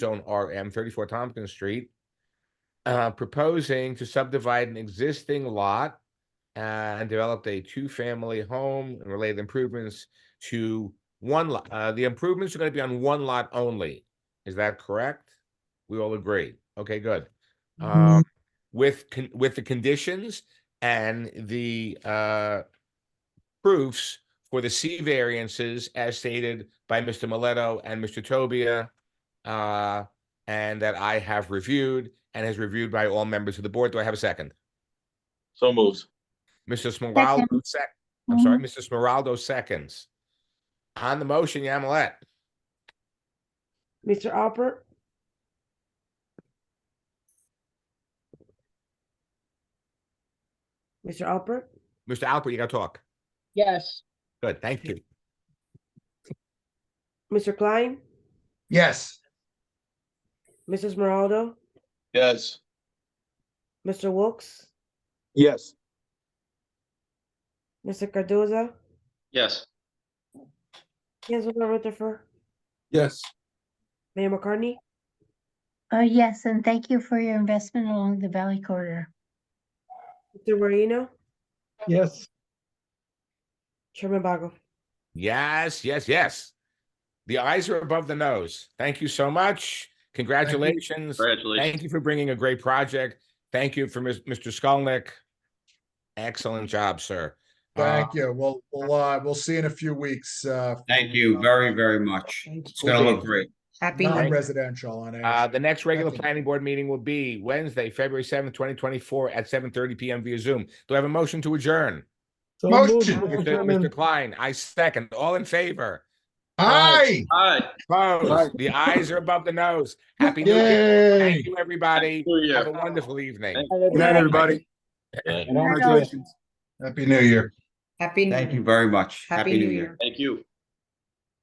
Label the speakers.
Speaker 1: zone RM, thirty-four Tompkins Street. Uh, proposing to subdivide an existing lot. uh, and developed a two-family home and related improvements to one lot. Uh, the improvements are gonna be on one lot only. Is that correct? We all agree. Okay, good. Um, with, con- with the conditions and the, uh, proofs for the C variances as stated by Mr. Mileto and Mr. Tobia. Uh, and that I have reviewed and has reviewed by all members of the board. Do I have a second?
Speaker 2: So moves.
Speaker 1: Mr. Smiraldo sec, I'm sorry, Mr. Smiraldo seconds. On the motion, Yamilet,
Speaker 3: Mr. Alpert, Mr. Alpert,
Speaker 1: Mr. Alpert, you gotta talk.
Speaker 4: Yes,
Speaker 1: Good, thank you.
Speaker 3: Mr. Klein,
Speaker 5: Yes,
Speaker 3: Mrs. Moraldo,
Speaker 2: Yes.
Speaker 3: Mr. Wilks,
Speaker 2: Yes.
Speaker 3: Mr. Cardoza,
Speaker 2: Yes.
Speaker 3: Councilmember Rutherford,
Speaker 2: Yes.
Speaker 3: Mayor McCartney,
Speaker 6: Oh, yes, and thank you for your investment along the Valley Corridor.
Speaker 3: Mr. Moreno,
Speaker 5: yes,
Speaker 3: Chairman Bago.
Speaker 1: Yes, yes, yes. The eyes are above the nose. Thank you so much. Congratulations.
Speaker 2: Congratulations.
Speaker 1: Thank you for bringing a great project. Thank you for Ms- Mr. Skolnick. Excellent job, sir. Uh,
Speaker 5: thank you. Well, we'll, uh, we'll see in a few weeks, uh.
Speaker 7: Thank you very, very much. It's gonna look great.
Speaker 3: Happy
Speaker 5: Non-residential on it.
Speaker 1: Uh, the next regular
Speaker 5: Second.
Speaker 1: planning board meeting will be Wednesday, February seventh, twenty twenty-four at seven thirty PM via Zoom. Do I have a motion to adjourn?
Speaker 5: Motion,
Speaker 1: Mr. Mr. Klein, I second. All in favor?
Speaker 5: aye,
Speaker 2: Hi.
Speaker 1: Opposed? The eyes are above the nose. Happy New Year.
Speaker 5: yay.
Speaker 1: Thank you, everybody.
Speaker 2: New Year.
Speaker 1: Have a wonderful evening.
Speaker 4: Good
Speaker 8: night, everybody.
Speaker 6: Congratulations.
Speaker 5: Happy New Year.
Speaker 8: Happy.
Speaker 7: Thank you very much. Happy New Year.
Speaker 2: Thank you.